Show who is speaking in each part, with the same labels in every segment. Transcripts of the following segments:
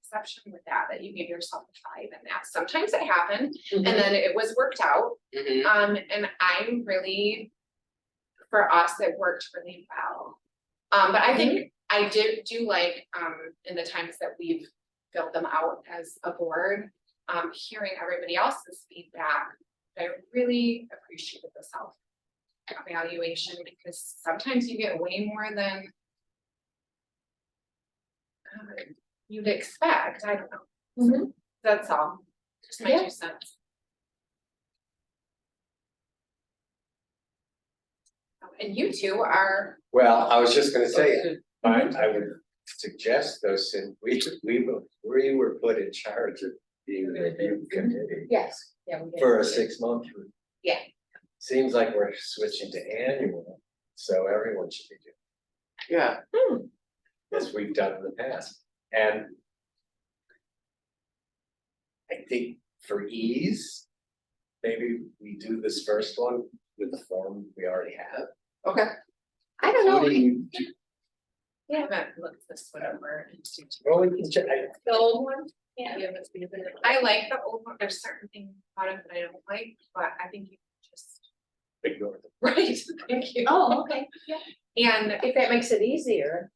Speaker 1: exception with that, that you give yourself a five and that. Sometimes it happened
Speaker 2: Mm-hmm.
Speaker 1: and then it was worked out.
Speaker 3: Mhm.
Speaker 1: Um, and I'm really, for us, it worked really well. Um, but I think I did do like, um, in the times that we've filled them out as a board, um, hearing everybody else's feedback, I really appreciated the self evaluation because sometimes you get way more than um, you'd expect, I don't know. So That's all, just my two cents. And you two are,
Speaker 4: Well, I was just gonna say, I I would suggest though, since we we were, we were put in charge of being the review committee
Speaker 2: Yes, yeah, we did.
Speaker 4: for a six month.
Speaker 1: Yeah.
Speaker 4: Seems like we're switching to annual, so everyone should be doing,
Speaker 3: Yeah,
Speaker 2: Hmm.
Speaker 4: it, as we've done in the past, and. I think for ease, maybe we do this first one with the form we already have.
Speaker 3: okay,
Speaker 2: I don't know, we-
Speaker 4: Including-
Speaker 1: I haven't looked this one over. and see too-
Speaker 4: Well, we can check, I-
Speaker 2: the old one,
Speaker 1: Yeah.
Speaker 2: yeah, that's been a bit of a-
Speaker 1: I like the old one, there's certain things about it that I don't like, but I think you just,
Speaker 4: ignore them.
Speaker 1: right, thank you.
Speaker 2: Oh, okay, yeah,
Speaker 1: And
Speaker 2: if that makes it easier,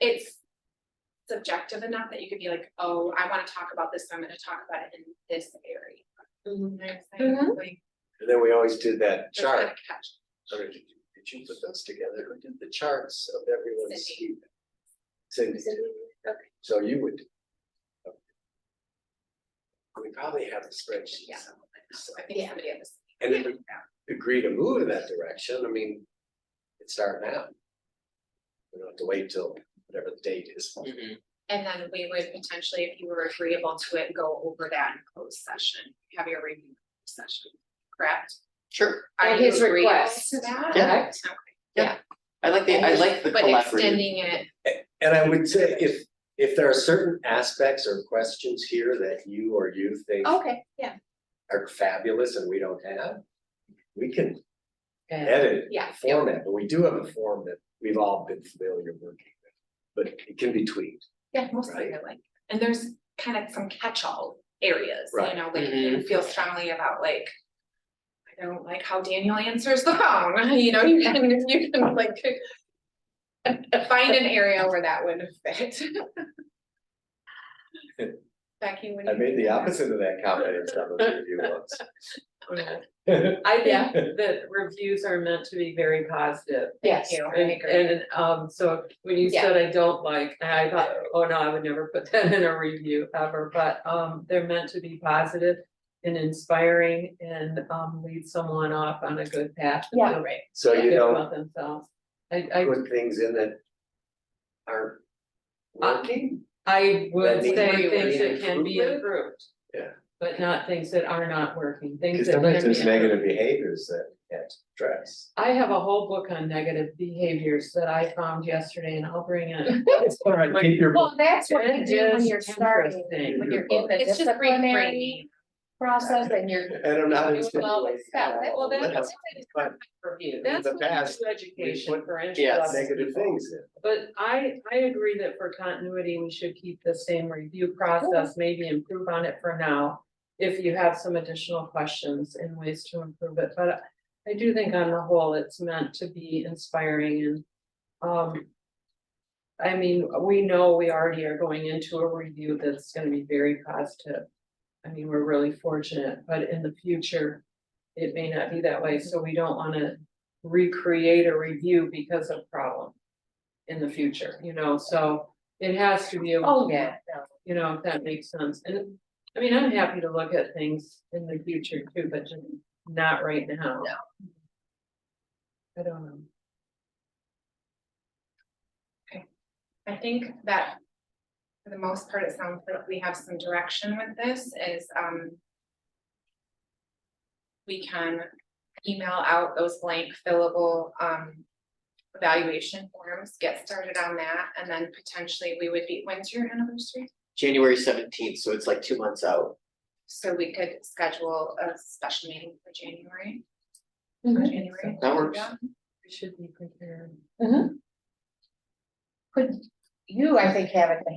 Speaker 1: it's subjective enough that you could be like, oh, I wanna talk about this, so I'm gonna talk about it in this area. You know what I'm saying? Like,
Speaker 4: And then we always did that
Speaker 1: there's not a
Speaker 4: chart,
Speaker 1: catch.
Speaker 4: Or did you, did you put those together, who did the charts of everyone's?
Speaker 1: Cindy.
Speaker 4: Cindy, did.
Speaker 2: Okay.
Speaker 4: so you would. okay. We probably have a spreadsheet,
Speaker 1: Yeah.
Speaker 4: somewhere,
Speaker 1: So I think
Speaker 2: Yeah.
Speaker 1: somebody on this.
Speaker 4: and if we agree to move in that direction, I mean, it's starting out. We don't have to wait till whatever the date is.
Speaker 1: Mm-hmm.
Speaker 3: mhm,
Speaker 1: And then we would potentially, if you were agreeable to it, go over that in closed session, have your review session, correct?
Speaker 3: sure,
Speaker 1: Are
Speaker 2: At
Speaker 1: you
Speaker 2: his
Speaker 1: agreeable
Speaker 2: request.
Speaker 1: To that?
Speaker 2: Yeah.
Speaker 1: Okay.
Speaker 3: I like the, I like the
Speaker 1: But
Speaker 3: collaborative,
Speaker 1: extending it,
Speaker 4: And I would say if, if there are certain aspects or questions here that you or you think
Speaker 1: Oh.
Speaker 2: okay, yeah.
Speaker 4: are fabulous and we don't have, we can
Speaker 2: Yeah.
Speaker 4: edit
Speaker 1: yeah,
Speaker 4: format, but we do have a form that we've all been familiar working with. But it can be tweaked.
Speaker 1: yeah, mostly I like, and there's kind of some catch-all areas, you
Speaker 4: Right.
Speaker 1: know, like you feel strongly about like. I don't like how Daniel answers the phone, you know, you can, you can like. Find an area where that would fit. Becky, what do
Speaker 4: I
Speaker 1: you?
Speaker 4: made
Speaker 1: think?
Speaker 4: the opposite of that comment in some of the review once.
Speaker 5: I
Speaker 2: Yeah.
Speaker 5: think that reviews are meant to be very positive.
Speaker 2: Yes.
Speaker 1: You know, I
Speaker 5: And,
Speaker 1: agree.
Speaker 5: and, um, so when you
Speaker 2: Yeah.
Speaker 5: said I don't like, I thought, oh no, I would never put that in a review ever, but, um, they're meant to be positive and inspiring and, um, lead someone off on a good path. to
Speaker 2: Yeah.
Speaker 5: feel
Speaker 1: Right.
Speaker 4: So you
Speaker 5: good
Speaker 4: don't
Speaker 5: About themselves. I, I,
Speaker 4: put things in that are working,
Speaker 5: I would
Speaker 4: That means
Speaker 5: say
Speaker 4: we
Speaker 5: things
Speaker 4: need
Speaker 5: that can be
Speaker 4: improvement?
Speaker 5: improved.
Speaker 4: Yeah.
Speaker 5: But not things that are not working, things
Speaker 4: because
Speaker 5: that can be.
Speaker 4: sometimes there's
Speaker 5: improved.
Speaker 4: negative behaviors that we can't address.
Speaker 5: I have a whole book on negative behaviors that I found yesterday and I'll bring it.
Speaker 4: All right, keep your.
Speaker 2: Well, that's what you
Speaker 5: It
Speaker 2: do when
Speaker 5: is
Speaker 2: you're starting,
Speaker 5: interesting.
Speaker 2: when you're in the
Speaker 1: It's just
Speaker 2: disciplinary
Speaker 1: reframing.
Speaker 2: process and you're.
Speaker 4: I don't know how to.
Speaker 2: Well,
Speaker 4: explain it.
Speaker 2: that's- well, that's-
Speaker 4: But
Speaker 5: Review.
Speaker 4: In
Speaker 5: That's
Speaker 4: the
Speaker 5: what you
Speaker 4: past,
Speaker 5: do education
Speaker 4: put-
Speaker 5: for
Speaker 3: Yes.
Speaker 5: introduction.
Speaker 4: Negative things in.
Speaker 5: But I, I agree that for continuity, we should keep the same review process, maybe improve on it for now. If you have some additional questions and ways to improve it, but I do think on the whole, it's meant to be inspiring and, um. I mean, we know we already are going into a review that's gonna be very positive. I mean, we're really fortunate, but in the future, it may not be that way, so we don't wanna recreate a review because of problem in the future, you know, so it has to be. a-
Speaker 2: Oh, yeah, no.
Speaker 5: You know, if that makes sense, and I mean, I'm happy to look at things in the future too, but just not right now.
Speaker 2: No.
Speaker 5: I don't know.
Speaker 1: I think that for the most part, it sounds like we have some direction with this is, um, we can email out those blank fillable, um, evaluation forms, get started on that, and then potentially we would be, when's your anniversary?
Speaker 3: January seventeenth, so it's like two months out.
Speaker 1: So we could schedule a special meeting for January, for
Speaker 2: Mhm.
Speaker 1: January.
Speaker 3: That works.
Speaker 1: Yeah.
Speaker 5: We should be prepared.
Speaker 2: You, I think, have it